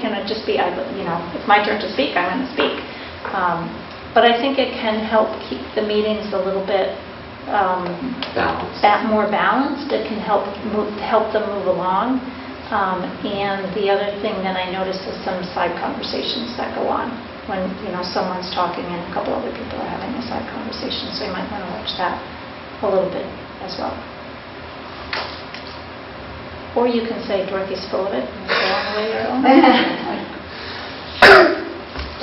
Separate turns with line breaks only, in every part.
to just be, I- you know, it's my turn to speak, I'm going to speak. Um, But I think it can help keep the meetings a little bit um,
balance.
ba- more balanced, it can help move, help them move along. Um, And the other thing that I notice is some side conversations that go on when, you know, someone's talking and a couple other people are having a side conversation, so you might want to watch that a little bit as well. Or you can say Dorothy Spillivic, and go on the way you're going.
Oh,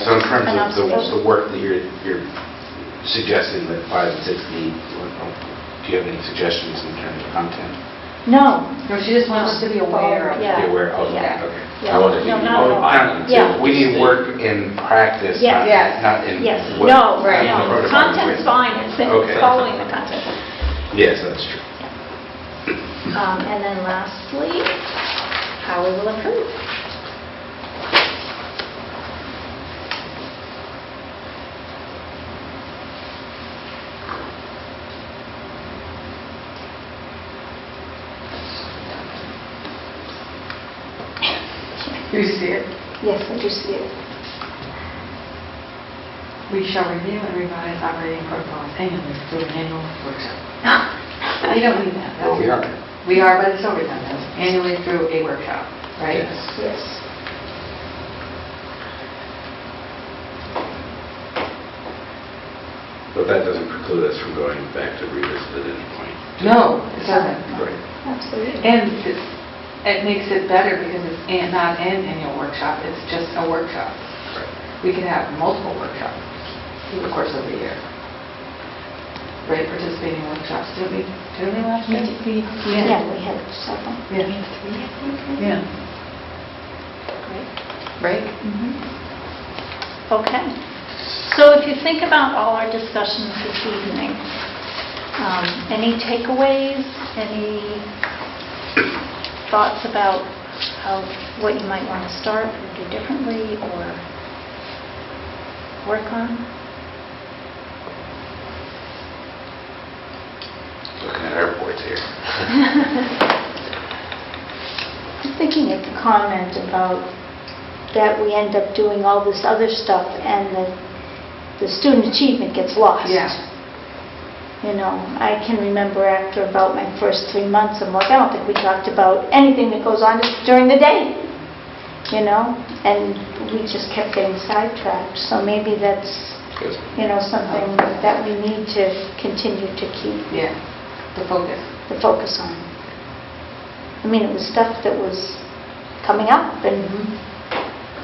So in terms of the,
Enough.
the work that you're, you're suggesting that five and six need, what- do you have any suggestions in terms of content?
No.
No, she just wants us to be aware of it.
Yeah.
Be aware of
Yeah.
that, okay.
Yeah.
I wonder if
No,
you
not at all.
modify them to-
Yeah.
We need work in practice,
Yes.
not
Yes.
not in.
Yes,
what-
no,
not
right.
in
no,
protocol.
content's fine, it's
Okay.
it's following the content.
Yes, that's true.
Um, And then lastly, how we will improve.
You see it.
Yes, I do see it.
We shall review and revise operating protocols annually through an annual workshop. We don't need that.
Well, we are.
We are, but it's overtime, that's annually through a workshop, right?
Yes.
Yes.
But that doesn't preclude us from going back to revisit at any point.
No, it doesn't.
Right.
Absolutely.
And it's- it makes it better because it's an- not an annual workshop, it's just a workshop. We can have multiple workshops through the course of the year. Right, participating workshops, didn't we, didn't we last year?
Yeah, we had several.
Yeah. Yeah.
Great.
Right?
Mm-hmm. Okay. So if you think about all our discussions this evening, um, any takeaways, any thoughts about how, what you might want to start or do differently or work on?
Looking at our boards here.
I'm thinking at the comment about that we end up doing all this other stuff and the, the student achievement gets lost.
Yeah.
You know, I can remember after about my first three months, I'm like, I don't think we talked about anything that goes on during the day, you know? And we just kept getting sidetracked, so maybe that's,
Yes.
you know, something that we need to continue to keep
Yeah, the focus.
the focus on. I mean, it was stuff that was coming up and,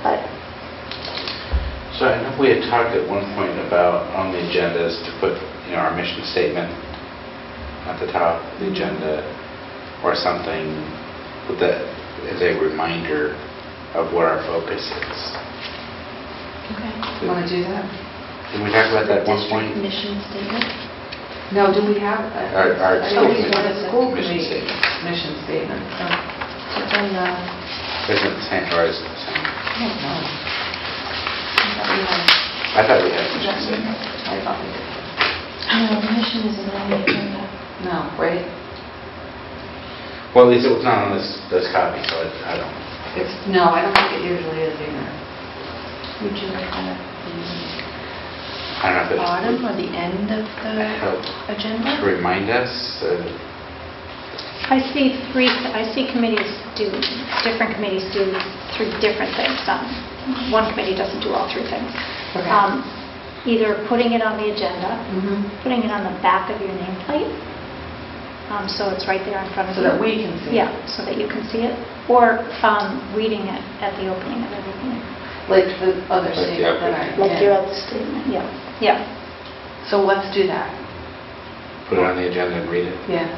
but,
So I know we had talked at one point about on the agendas to put, you know, our mission statement at the top of the agenda or something with that as a reminder of what our focus is.
Want to
Did
do that?
did we talk about that at one point?
No, do we have? a-
Our- our
I think we
statement,
want a school
mission
committee
statement.
Mission statement.
Isn't it the same or is it the same?
I don't know.
I thought we had a mission statement.
I thought we did.
mission is on the agenda.
No, right?
Well, at least it was not on this, this copy, so I I don't.
It's, no, I don't think it usually is either.
Would you like that at
I don't know if
the
it's.
bottom or the end of
Help.
the
To
agenda?
remind us, uh,
I see three, I see committees do, different committees do three different things.
Mm-hmm.
Um, One committee doesn't do all three things.
Okay.
Um, Either putting it on the agenda,
Mhm.
putting it on the back of your nameplate, um, so it's right there in front of
So
you.
that we can see.
Yeah, so that you can see it, or um, reading it at the opening of every meeting.
Like the other
Like the
statement that I.
upper-
like your
yeah.
other statement.
Yeah, yeah.
So let's do that.
put it on the agenda and read it.
Yeah.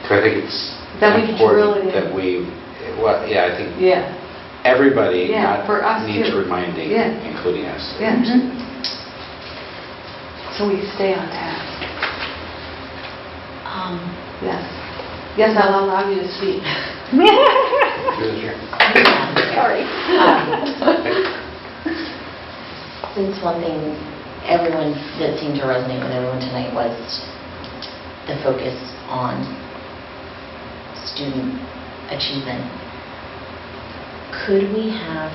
Because I think it's
That we can drill
important
it in.
that we, well, yeah, I think
Yeah.
everybody
Yeah,
not-
for us
needs
too.
reminding,
Yeah.
including us.
Yeah. Mm-hmm. So we stay on task.
Um,
Yes. Yes, I'll allow you to speak.
Sorry.
Um,
Since one thing, everyone, that seemed to resonate with everyone tonight was the focus on student achievement. Could we have